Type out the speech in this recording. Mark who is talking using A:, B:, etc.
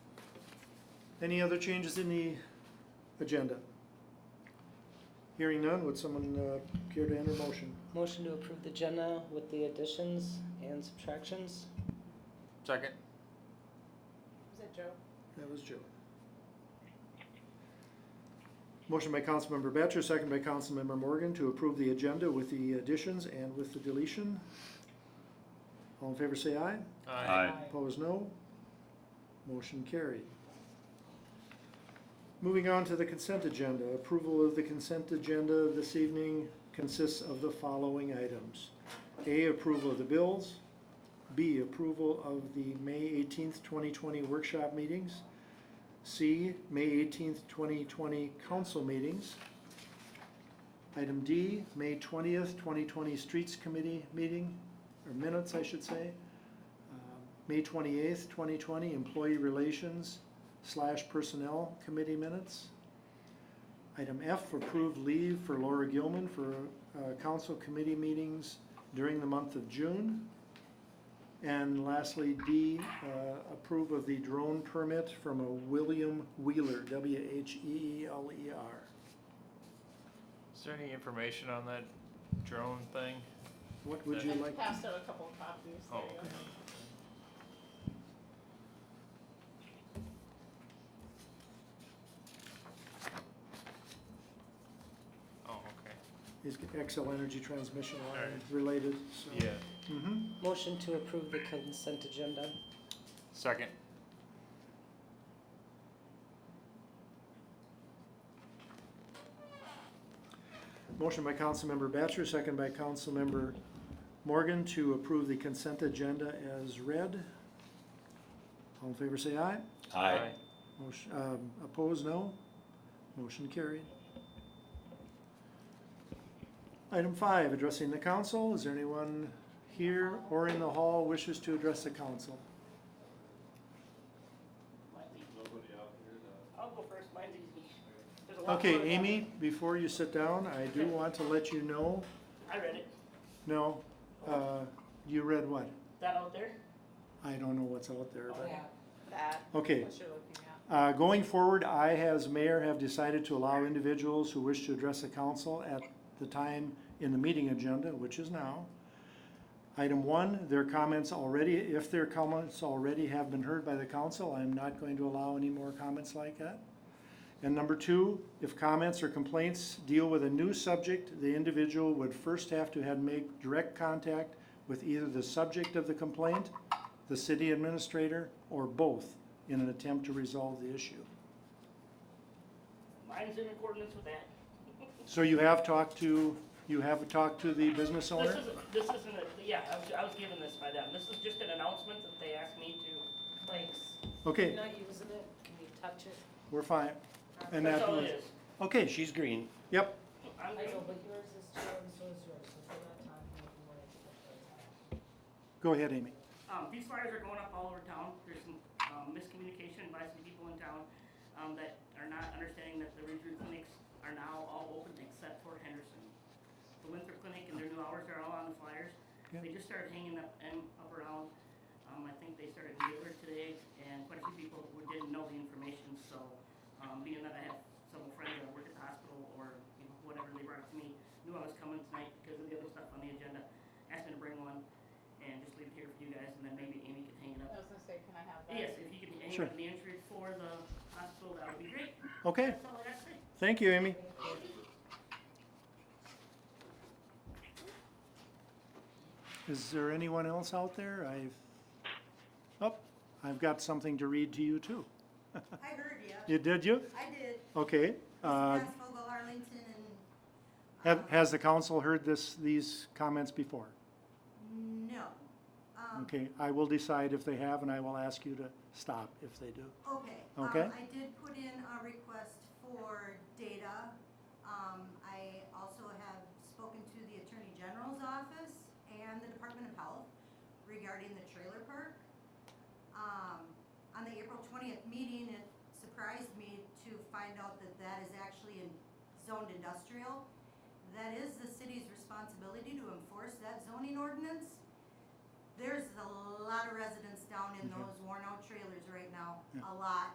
A: Any other changes in the agenda? Hearing none, would someone uh, care to enter a motion?
B: Motion to approve the agenda with the additions and subtractions.
C: Second.
D: Was that Joe?
A: That was Joe. Motion by Councilmember Batchor, second by Councilmember Morgan to approve the agenda with the additions and with the deletion. All in favor say aye.
E: Aye.
A: Opposed, no. Motion carried. Moving on to the consent agenda. Approval of the consent agenda this evening consists of the following items. A, approval of the bills. B, approval of the May eighteenth, twenty twenty workshop meetings. C, May eighteenth, twenty twenty council meetings. Item D, May twentieth, twenty twenty streets committee meeting, or minutes, I should say. Um, May twenty-eighth, twenty twenty, Employee Relations slash Personnel Committee Minutes. Item F, approved leave for Laura Gilman for uh, council committee meetings during the month of June. And lastly, D, uh, approve of the drone permit from a William Wheeler, W H E E L E R.
C: Is there any information on that drone thing?
A: What would you
D: I
A: like?
D: passed out a couple of copies.
C: Oh,
D: There you go.
C: okay. Oh, okay.
A: Is Excel Energy Transmission
C: All
A: Line
C: right.
A: related? so-
C: Yeah.
A: Mhm.
B: Motion to approve the consent agenda.
C: Second.
A: Motion by Councilmember Batchor, second by Councilmember Morgan to approve the consent agenda as read. All in favor say aye.
E: Aye.
A: Motion, um, opposed, no. Motion carried. Item five, addressing the council. Is there anyone here or in the hall wishes to address the council?
D: I'll go first, mine's easy. There's a lot
A: Okay,
D: more of them.
A: Amy, before you sit down, I do want to let you know,
D: I read it.
A: no, uh, you read what?
D: That out there?
A: I don't know what's out there, but.
D: That,
A: Okay,
D: what you're looking at.
A: uh, going forward, I as mayor have decided to allow individuals who wish to address the council at the time in the meeting agenda, which is now. Item one, their comments already, if their comments already have been heard by the council, I am not going to allow any more comments like that. And number two, if comments or complaints deal with a new subject, the individual would first have to have make direct contact with either the subject of the complaint, the city administrator, or both in an attempt to resolve the issue.
D: Mine's in accordance with that.
A: So you have talked to, you have talked to the business
D: This
A: owner?
D: isn't, this isn't, a- yeah, I was, I was given this by them. This is just an announcement that they asked me to.
F: Thanks.
A: Okay,
F: Not using it, can you touch it?
A: we're fine. And
D: That's
A: that
D: all
A: was,
D: it is.
A: okay, she's green. Yep,
F: I
D: I'm
F: know,
D: good.
F: but yours is true and so is yours, so if we're not talking, if you want it, it's
A: go ahead, Amy.
D: Um, these flyers are going up all over town. There's some, um, miscommunication by some people in town, um, that are not understanding that the Ridgeview clinics are now all open except for Henderson. The Winthrop Clinic and their new hours are all on the flyers.
A: Yeah.
D: They just started hanging up and up around. Um, I think they started Mueller today and quite a few people who didn't know the information, so, um, being that I have several friends that work at the hospital or, you know, whatever, they brought it to me, knew I was coming tonight because of the other stuff on the agenda, asked me to bring one and just leave it here for you guys, and then maybe Amy can hang it
G: I
D: up.
G: was gonna say, can I have that?
D: Yes, if you can hang
A: Sure.
D: up the entry for the hospital, that would be great.
A: Okay,
D: That's all I got to say.
A: thank you, Amy. Is there anyone else out there? I've, oh, I've got something to read to you too.
H: I heard you.
A: You, did you?
H: I did.
A: Okay. Uh,
H: Mrs. Pascal, Arlington, and.
A: have,
H: um,
A: has the council heard this, these comments before?
H: No. Um,
A: Okay, I will decide if they have and I will ask you to stop if they do.
H: Okay. um,
A: Okay.
H: I did put in a request for data. Um, I also have spoken to the Attorney General's office and the Department of Health regarding the trailer park. Um, on the April twentieth meeting, it surprised me to find out that that is actually in zoned industrial. That is the city's responsibility to enforce that zoning ordinance. There's a lot of residents down in
A: Mhm.
H: those worn out trailers right now,
A: Yeah.
H: a lot.